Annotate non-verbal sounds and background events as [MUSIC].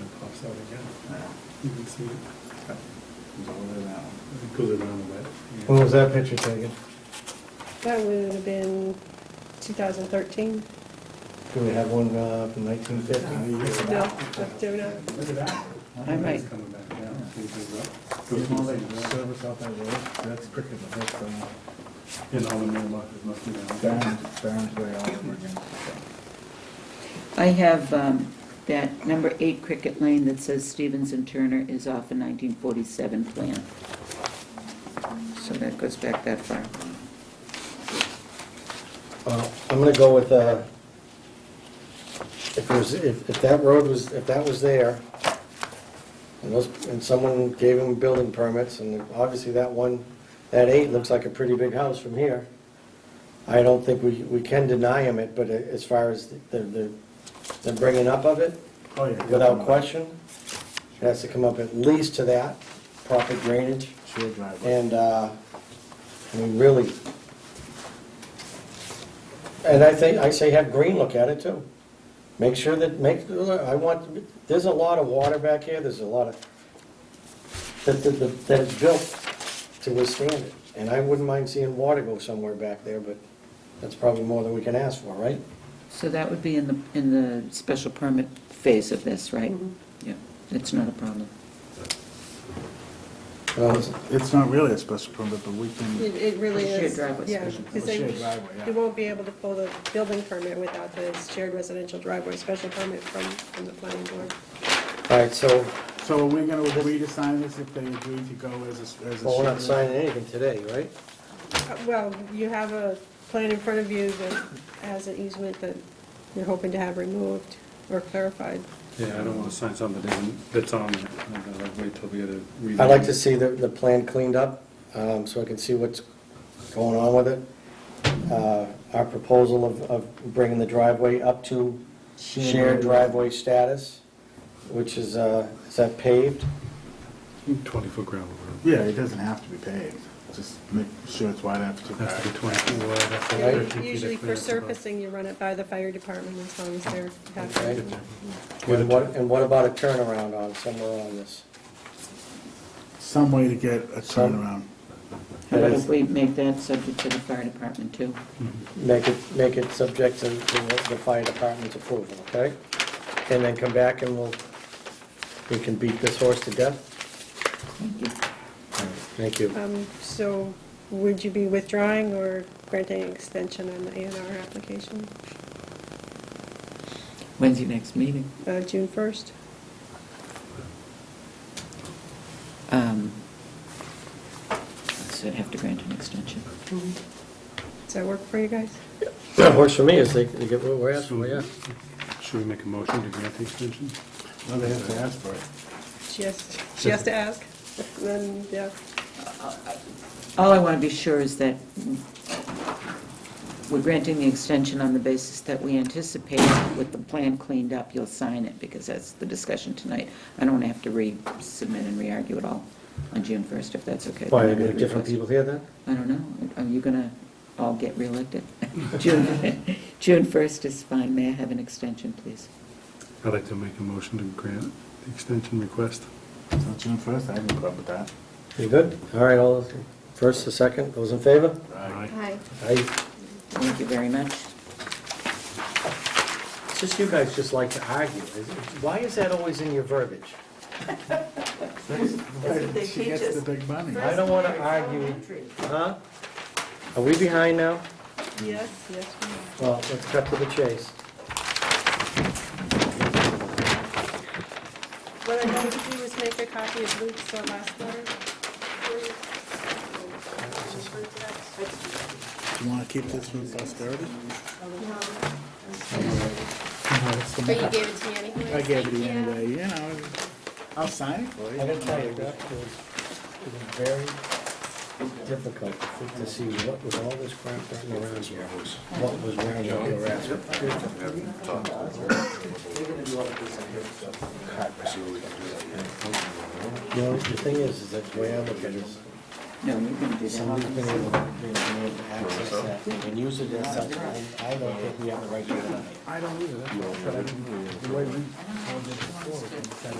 saw it again. It You can see it. was over there now. It goes around the way. When was that picture taken? That would have been 2013. Do we have one uh, from nineteen fifty? No, not doing it. Look at that. I might, It's coming back down. See if it's You know, they up. service out that road, that's cricket, but that's, uh, In all the mailboxes must be down. Barron's, Barron's way all over again. I have um, that number eight Cricket Lane that says Stevens and Turner is off a 1947 plan. So that goes back that far. Uh, I'm gonna go with, uh, if it was, if, if that road was, if that was there, and those, and someone gave him building permits, and obviously that one, that eight looks like a pretty big house from here. I don't think we, we can deny him it, but as far as the, the, the bringing up of it, Oh, yeah. without question, it has to come up at least to that, proper drainage. Shared driveway. And, uh, I mean, really, and I think, I say have Green look at it too. Make sure that, make, I want, there's a lot of water back here, there's a lot of, that, that, that- that it's built to withstand it. And I wouldn't mind seeing water go somewhere back there, but that's probably more than we can ask for, right? So that would be in the, in the special permit phase of this, right? Mhm. Yeah, it's not a problem. Well, It's not really a special permit, but we can, It it really The shared is, driveway yeah. special. Because The they, shared driveway, yeah. you won't be able to pull the building permit without the shared residential driveway special permit from, from the planning board. all right, so, so are we gonna agree to sign this if they agree to go as a, as a shared? well, we're not signing anything today, right? Uh, Well, you have a plan in front of you that has an easement that you're hoping to have removed or clarified. Yeah, I don't want to sign something that isn't- that's on it. I'd rather wait till we get a. read. I'd like to see the, the plan cleaned up, um, so I can see what's going on with it. Uh, Our proposal of, of bringing the driveway up to shared driveway status, which is, uh, is that paved? Twenty-foot gravel road. Yeah, it doesn't have to be paved, just make sure it's wide enough to. It Has to be twenty-foot wide. has to be Right. 13 feet of Usually for clearance above. surfacing, you run it by the fire department as long as they're happy. Okay. And what, and what about a turnaround on, somewhere on this? Some way to get a turnaround. How about Yes. if we make that subject to the fire department too? Make it, make it subject to the the fire department's approval, okay? And then come back and we'll, we can beat this horse to death? Thank you. Thank you. Um, So would you be withdrawing or granting an extension on the A and R application, When's your next meeting? uh, June 1st? Um, So I'd have to grant an extension. Does that work for you guys? That works for me, is they, they get what we're asking, for, yeah. Should we make a motion to grant the extension? Well, they have to ask for it. She has, she has to ask, then, yeah. All I want to be sure is that we're granting the extension on the basis that we anticipate with the plan cleaned up, you'll sign it, because that's the discussion tonight. I don't want to have to resubmit and re-argue it all on June 1st, if that's okay. Why, are there different people here then? I don't know. Are you going to all get reelected? [LAUGHS] June June 1st is fine. May I have an extension, please? I'd like to make a motion to grant the extension request. So June first, I have no problem with that. You good? All right, all, first, the second, those in favor? Aye. Hi. Aye. Thank you very much. It's just you guys just like to argue. Is it- Why is that always in your verbiage? they She gets the big money. I don't want to argue, huh? Are we behind now? Yes, yes. we are. Well, let's cut to the chase. What I wanted to do was make a copy of Luke's uh, last letter. for you. Do you wanna keep this for posterity? But you gave it to me anyway. I gave it to you Yeah. anyway, you know, I'll sign it for I you. gotta tell you, that was, it was very difficult to see what was all this crap running around here. What was running around. No, the thing is, is that the way I look at it is, No, you're going to do that. somebody's been able, been able to access that and use it as something. I don't think we have the right to do that. I don't either, that's what I said, I didn't- the way we-